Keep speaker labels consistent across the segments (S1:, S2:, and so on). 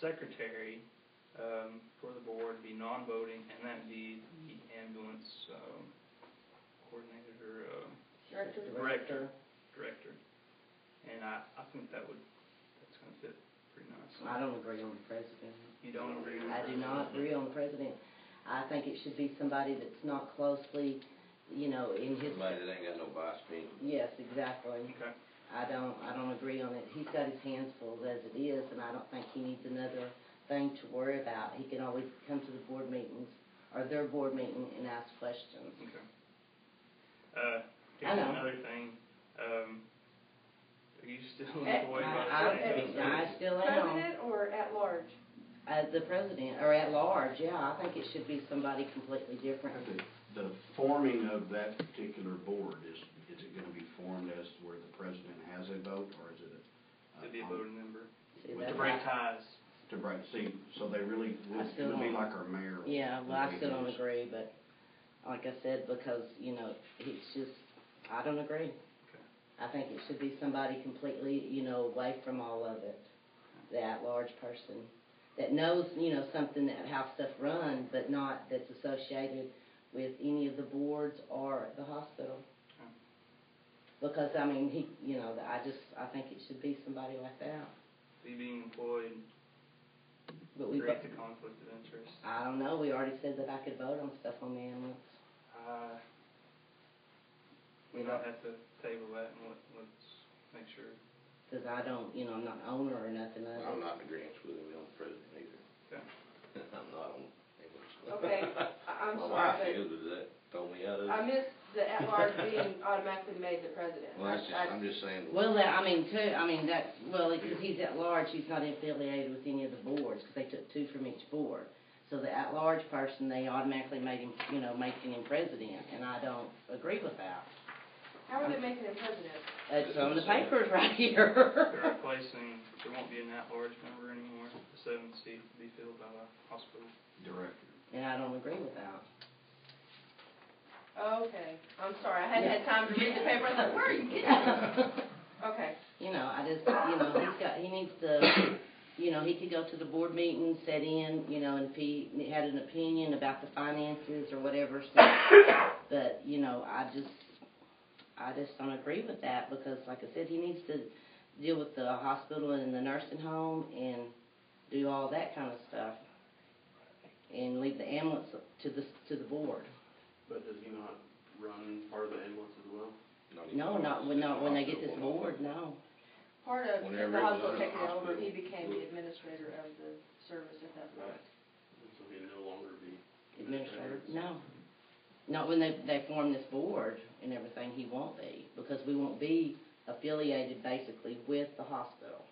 S1: secretary, um, for the board be non-voting, and that'd be the ambulance, um, coordinator or, uh,
S2: Director,
S1: Director. director. And I, I think that would, that's gonna fit pretty
S2: I
S1: nicely.
S2: don't agree on the president.
S1: You don't agree with
S2: I do not agree on the president. I think it should be somebody that's not closely, you know, in his.
S3: Somebody that ain't got no boss opinion.
S2: Yes, exactly.
S1: Okay,
S2: I don't, I don't agree on it. He's got his hands full as it is, and I don't think he needs another thing to worry about. He can always come to the board meetings, or their board meeting, and ask questions.
S1: okay. Uh,
S2: I
S1: here's
S2: know.
S1: another thing, um, are you still
S4: Eh,
S1: employed by the
S2: I,
S1: same
S2: I, I still am,
S4: President or at large?
S2: as the president, or at large, yeah, I think it should be somebody completely different.
S5: The forming of that particular board, is, is it gonna be formed as where the president has a vote, or is it? a-
S1: To be a voting member,
S2: See,
S5: With
S2: that's
S1: to break
S2: why-
S1: ties.
S5: To break, see, so they really, would-
S2: I still
S5: it would
S2: don't-
S5: be like our mayor.
S2: Yeah, well, I
S5: the
S2: still
S5: way it
S2: don't
S5: is.
S2: agree, but like I said, because, you know, it's just, I don't agree. I think it should be somebody completely, you know, away from all of it, that large person, that knows, you know, something that, how stuff run, but not that's associated with any of the boards or the hospital.
S1: Okay.
S2: Because, I mean, he, you know, I just, I think it should be somebody like that,
S1: So you being employed,
S2: but we,
S1: creates a conflict of interest.
S2: I don't know, we already said that I could vote on stuff on the ambulance.
S1: Uh, we
S2: We
S1: might
S2: don't-
S1: have to table that and let, let's make sure.
S2: Because I don't, you know, I'm not an owner or nothing of
S3: I'm
S2: it.
S3: not in agreement with him on president either.
S1: Okay.
S3: I'm not on.
S4: Okay, I- I'm
S3: My wife
S4: sorry,
S3: is, but that told me out of
S4: but I
S3: it.
S4: missed the at large being automatically made the president.
S3: Well, that's just,
S4: I- I-
S3: I'm just saying,
S2: Well, that, I mean, too, I mean, that's, well, because he's at large, he's not affiliated with any of the boards, because they took two from each board. So the at-large person, they automatically made him, you know, making him president, and I don't agree with that.
S4: How are they making him president?
S2: It's on the papers right here.
S1: They're replacing, there won't be an at-large member anymore. The seventh seat will be filled by the hospital.
S5: Director.
S2: And I don't agree with that.
S4: Okay, I'm sorry, I hadn't had time to read the paper, I was like, where are you getting this? Okay,
S2: You know, I just, you know, he's got, he needs to, you know, he could go to the board meeting, sit in, you know, and if he had an opinion about the finances or whatever, so, but, you know, I just, I just don't agree with that, because like I said, he needs to deal with the hospital and the nursing home and do all that kind of stuff. And leave the ambulance to the, to the board.
S6: But does he not run part of the ambulance as well?
S2: No, not when, not when they get this board, no.
S4: part of the
S3: Whenever it was
S4: hospital
S3: under
S4: taking over, he
S3: hospital.
S4: became the administrator of the service at that point.
S6: So he'd no longer be.
S2: Administrator, no. Not when they, they form this board and everything, he won't be, because we won't be affiliated basically with the hospital.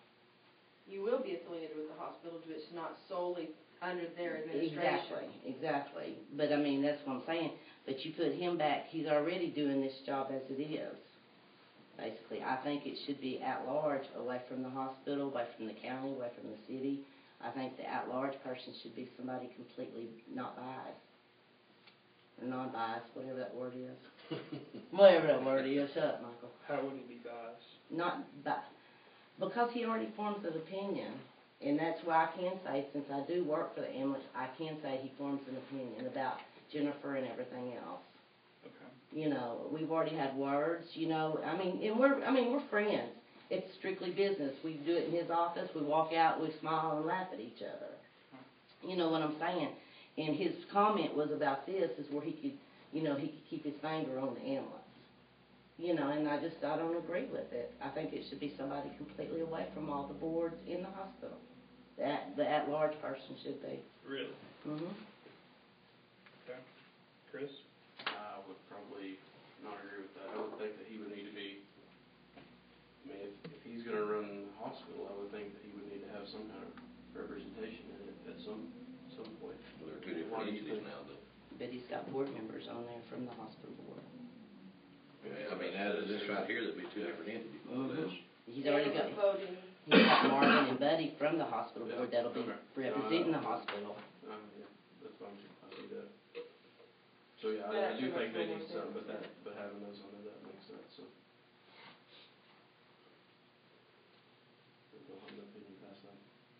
S4: You will be affiliated with the hospital, but it's not solely under their
S2: Exactly,
S4: administration.
S2: exactly. But I mean, that's what I'm saying, but you put him back, he's already doing this job as it is. Basically, I think it should be at large, away from the hospital, away from the county, away from the city. I think the at-large person should be somebody completely not biased, or non-biased, whatever that word is. Whatever that word is, shut up, Michael.
S1: How would it be biased?
S2: Not that, because he already forms an opinion, and that's why I can say, since I do work for the ambulance, I can say he forms an opinion about Jennifer and everything else.
S1: Okay.
S2: You know, we've already had words, you know, I mean, and we're, I mean, we're friends. It's strictly business. We do it in his office, we walk out, we smile and laugh at each other. You know what I'm saying? And his comment was about this, is where he could, you know, he could keep his finger on the ambulance. You know, and I just, I don't agree with it. I think it should be somebody completely away from all the boards in the hospital. That, the at-large person should be.
S1: Really?
S2: hmm
S1: Chris?
S6: I would probably not agree with that. I would think that he would need to be, I mean, if, if he's gonna run the hospital, I would think that he would need to have some kind of representation in it at some, some point.
S3: They're two different entities now, though.
S2: But he's got board members on there from the hospital board.
S3: I mean, out of this right here, that'd be two different entities, all
S2: Mm-hmm.
S3: this.
S2: He's already got,
S4: And voting.
S2: he's got Marvin and Buddy from the hospital
S6: Yeah,
S2: board that'll be
S6: okay.
S2: representing the
S6: Uh,
S2: hospital.
S6: Um, yeah, that's fine, I see that. So, yeah, I, I do think they need some, but that, but having those under that makes sense, so.